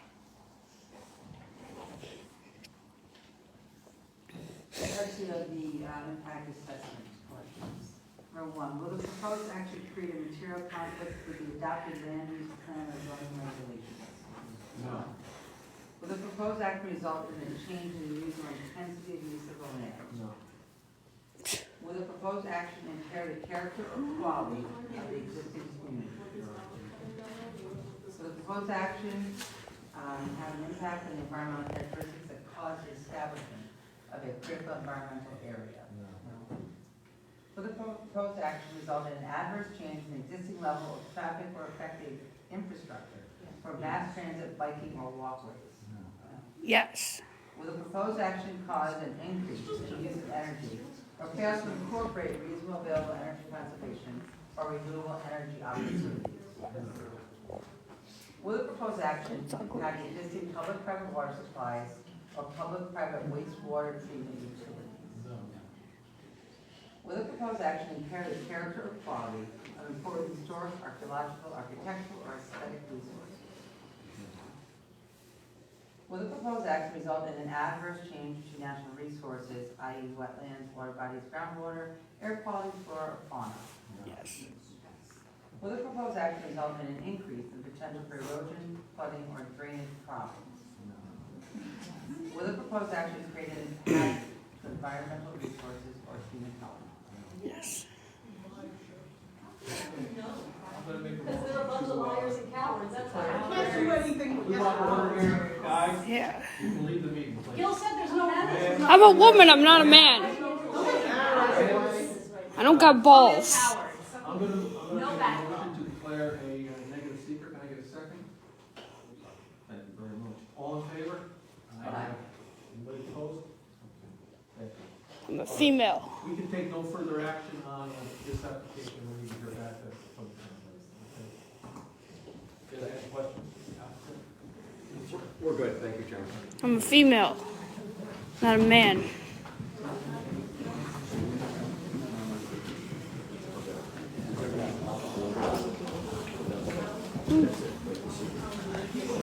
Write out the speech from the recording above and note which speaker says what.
Speaker 1: about impact assessment questions. Number one, will the proposed action create a material conflict with the adopted land use plan or zoning regulations?
Speaker 2: No.
Speaker 1: Will the proposed act result in a change in the use or intensity of use of the land?
Speaker 2: No.
Speaker 1: Will the proposed action impair the character or quality of the existing community? So the proposed action um, have an impact on the environmental characteristics that cause the establishment of a critical environmental area?
Speaker 2: No.
Speaker 1: No. Will the proposed action result in an adverse change in the existing level of traffic or affecting infrastructure for mass transit, biking, or walkways? Uh, No.
Speaker 3: yes,
Speaker 1: Will the proposed action cause an increase in the use of energy or fail to incorporate reasonable available energy conservation or renewable energy opportunities? Will the proposed action impact existing public-private water supplies or public-private wastewater treatment utilities?
Speaker 2: No.
Speaker 1: Will the proposed action impair the character or quality of important historic, archaeological, architectural, or aesthetic resources? Will the proposed action result in an adverse change to natural resources, i.e. wetlands, water bodies, groundwater, air quality, flora, or fauna?
Speaker 3: yes,
Speaker 1: Will the proposed action result in an increase in potential for erosion, flooding, or drainage problems? Will the proposed action create an impact to environmental resources or human health?
Speaker 3: yes,
Speaker 2: I'm gonna make a
Speaker 4: Because they're a bunch of liars and cowards, that's
Speaker 5: Can't do
Speaker 4: how.
Speaker 5: anything with
Speaker 2: We want to order here, guys,
Speaker 3: yeah.
Speaker 2: you can leave the meeting, please.
Speaker 4: Gil said there's no
Speaker 2: Yeah.
Speaker 3: I'm a woman, I'm not a man.
Speaker 4: balance.
Speaker 3: I don't got balls.
Speaker 2: I'm gonna, I'm
Speaker 4: No
Speaker 2: gonna make a
Speaker 4: back.
Speaker 2: motion to declare a uh, negative secret, can I get a second? Thank you very much. All in favor?
Speaker 1: Aye.
Speaker 2: Anybody opposed? Okay. Thank you.
Speaker 3: I'm a female.
Speaker 2: We can take no further action on uh, this application, we need to hear back uh, from the town. okay? Is there any questions?
Speaker 6: We're good, thank you, Chairman.
Speaker 3: I'm a female, not a man.